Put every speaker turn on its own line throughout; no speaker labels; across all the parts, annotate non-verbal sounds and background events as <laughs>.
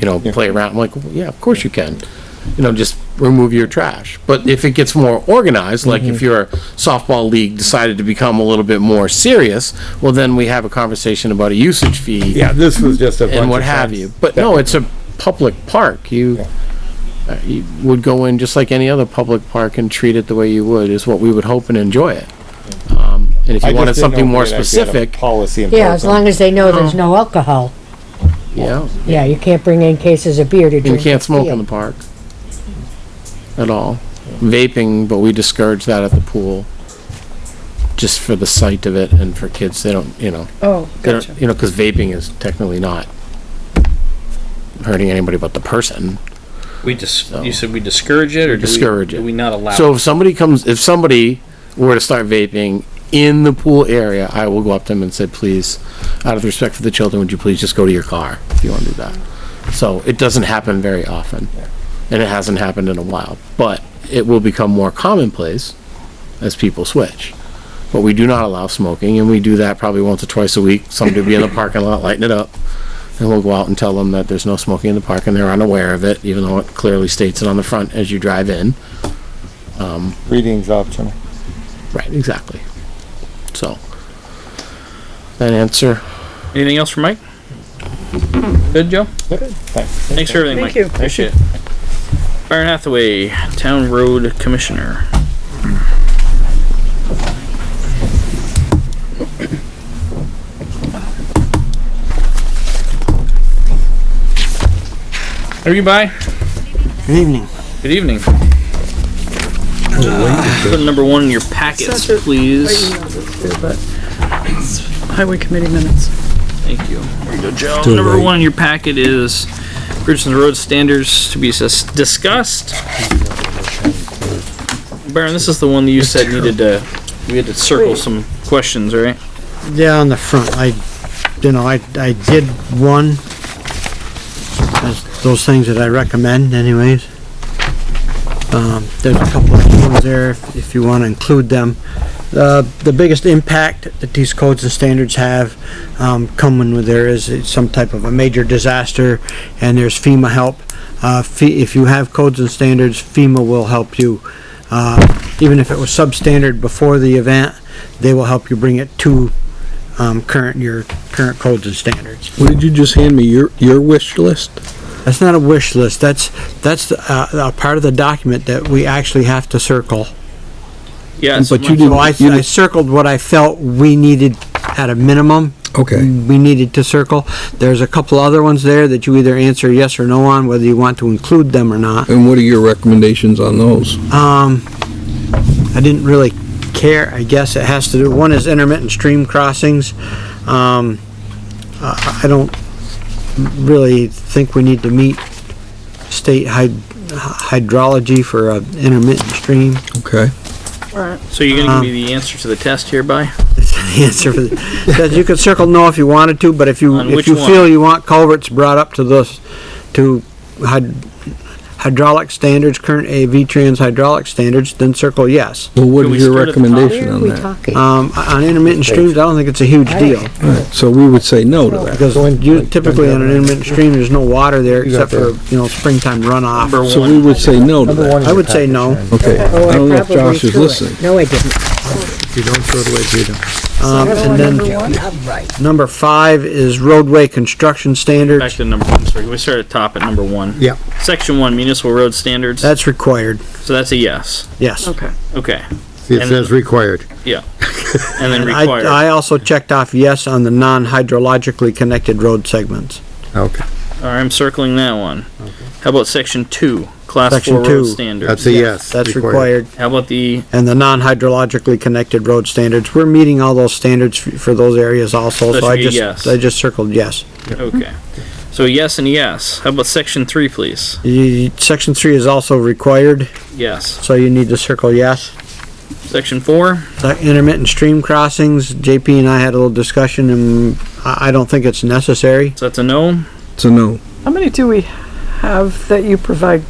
you know, play around. I'm like, "Well, yeah, of course you can. You know, just remove your trash. But if it gets more organized, like
Mm-hmm.
if your softball league decided to become a little bit more serious, well, then we have a conversation about a usage fee
Yeah, this was just a bunch
and what
of
have
facts.
you. But no, it's a public park. You, uh, you would go in just like any other public park and treat it the way you would, is what we would hope and enjoy it. Um, and if
I
you
just
wanted
didn't
something
know
more
if we had actually had a
specific,
Policy in place.
Yeah, as long as they know
Oh.
there's no alcohol.
yeah,
Yeah, you can't bring in cases of beer to
you
drink.
can't smoke in
field.
the park at all. Vaping, but we discourage that at the pool, just for the sight of it and for kids, they don't, you know.
Oh,
they don't-
gotcha.
You know, because vaping is technically not hurting anybody but the person.
We dis- you said we discourage it or
discourage
do
it.
we, Do we not allow
So
it?
if somebody comes, if somebody were to start vaping in the pool area, I will go up to them and say, please, out of respect for the children, would you please just go to your car if you want to do that? So it doesn't happen very often, and it hasn't happened in a while, but it will become more commonplace as people switch. But we do not allow smoking, and we do that probably once or twice a week. Somebody will be in the parking lot lighting it up, and we'll go out and tell them that there's no smoking in the park, and they're unaware of it, even though it clearly states it on the front as you drive in.
Reading's optional.
Right, exactly. So, that answer,
Anything else from Mike? Good, Joe.
Thanks.
Thanks for everything,
Thank
Mike.
you.
Appreciate it. Byron Hathaway, Town Road Commissioner. Are you by?
Good evening.
Good evening. Put number one in your packets,
Such a-
please.
Highway committee minutes.
Thank you. There you go, Joe. Number one in your packet is Bridgeton Road standards to be sus- discussed. Baron, this is the one that you said needed to, we had to circle some questions, right?
Yeah, on the front, I, you know, I, I did one. That's Those things that I recommend anyways. Um, there's a couple of ones there if if you wanna include them. Uh, the biggest impact that these codes and standards have, um, come when there is some type of a major disaster and there's FEMA help. Uh, fe- if you have codes and standards, FEMA will help you. Uh, even if it was substandard before the event, they will help you bring it to um, current, your current codes and standards.
What did you just hand me? Your, your wish list?
That's not a wish list, that's, that's uh, a part of the document that we actually have to circle.
Yeah. so
But
my-
you
So I,
You didn't-
I circled what I felt we needed at a minimum.
Okay.
We needed to circle. There's a couple other ones there that you either answer yes or no on, whether you want to include them or not.
And what are your recommendations on those?
Um, I didn't really care, I guess it has to do, one is intermittent stream crossings. Um, I, I don't really think we need to meet state hyd- hydrology for a intermittent stream. <laughs>
Okay.
So you're gonna
Uh,
give me the answer to the test hereby?
That's the answer for the, because you could circle no if you wanted to, but if you,
On
if
which
you
one?
feel you want culverts brought up to this, to hyd- hydraulic standards, current AV trans hydraulic standards, then circle yes.
Well, what
Can we
is your
start at the top?
recommendation
Where are
on
we
that?
talking?
Um, on intermittent streams, I don't think it's a huge deal.
So we would say no to that.
Because you typically on an intermittent stream, there's no water there except for, you know, springtime runoff.
Number
So we
one,
would say no to
Number
that.
one.
I would say no.
Okay.
Oh,
I don't know if
probably
Josh is
threw it.
listening.
No, I didn't. Oh,
Um, and then, number five is roadway construction
back
standards.
to number one, sorry, we start at top at number one.
Yeah.
Section one, municipal road standards,
That's required,
so that's a yes,
yes.
Okay.
okay,
It says required.
<laughs>
yeah. And then
I,
required.
I also checked off yes on the non-hydrologically connected road segments.
Okay,
All right, I'm circling that one. How about section two, class
Section
four
two.
road standards?
that's a yes.
That's required.
How about the,
And the non-hydrologically connected road standards, we're meeting all those standards f- for those areas also,
That
so I
should be yes.
just, I just circled yes.
okay. So yes and yes. How about section three, please?
You- Section three is also required,
Yes.
so you need to circle yes.
Section four,
So Intermittent stream crossings, JP and I had a little discussion and I, I don't think it's necessary.
so that's a no.
It's a no.
How many do we have that you provide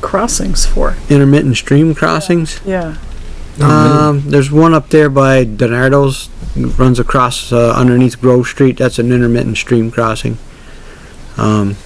crossings for?
Intermittent stream crossings?
Yeah.
Um, there's one up there by Donardo's, runs across, uh, underneath Grove Street, that's an intermittent stream crossing. Um,